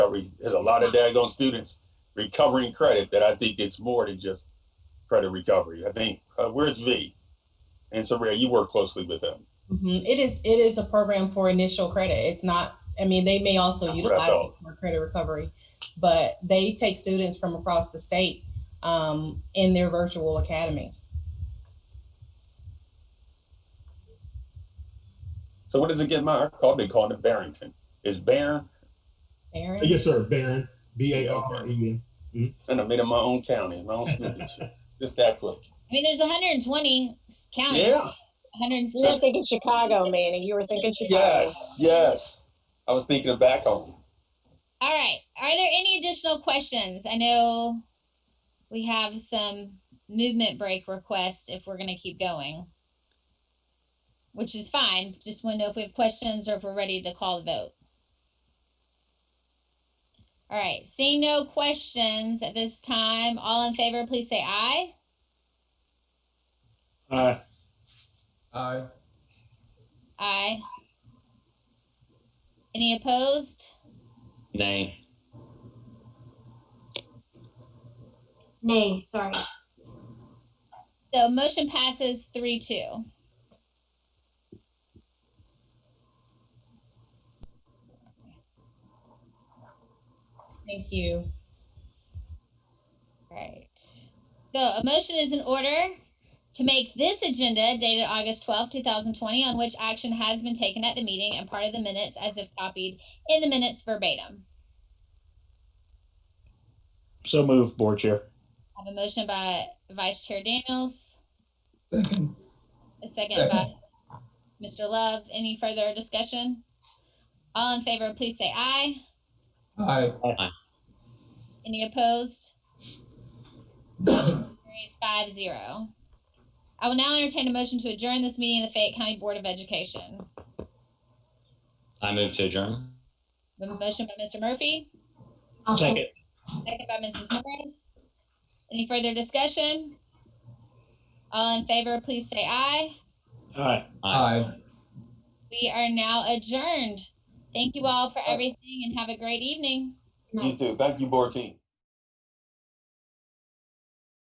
recovery. There's a lot of daggone students recovering credit that I think it's more than just credit recovery. I think uh, where's V? And Soraya, you work closely with them. Mhm. It is, it is a program for initial credit. It's not, I mean, they may also That's what I utilize it thought. for credit recovery, but they take students from across the state um, in their virtual academy. So what does it get my call? They call it Barrington. It's Barron, Aaron? Yes, sir, Baron, B A R E N. and I made it my own county, my own school. just that quick. I mean, there's 120 counties. Yeah. 100. You're not thinking Chicago, Manny. You were thinking Chicago. Yes. Yes. I was thinking of back home. All right. Are there any additional questions? I know we have some movement break requests if we're going to keep going, which is fine. Just want to know if we have questions or if we're ready to call the vote. All right. Seeing no questions at this time, all in favor, please say aye. Aye. Aye. Aye. Any opposed? Nay. Nay, sorry. So motion passes three two. Thank you. Right. So a motion is in order to make this agenda dated August twelfth, two thousand twenty, on which action has been taken at the meeting and part of the minutes as if copied in the minutes verbatim. So move, Board Chair. I have a motion by Vice Chair Daniels, Second. a second by Mr. Love. Any further discussion? All in favor, please say aye. Aye. Any opposed? Carries five zero. I will now entertain a motion to adjourn this meeting of the Fayette County Board of Education. I move to adjourn. We have a motion by Mr. Murphy, I'll Second. second. second by Mrs. Morris. Any further discussion? All in favor, please say aye. Aye. Aye. We are now adjourned. Thank you all for everything and have a great evening. You too. Thank you, Bortine.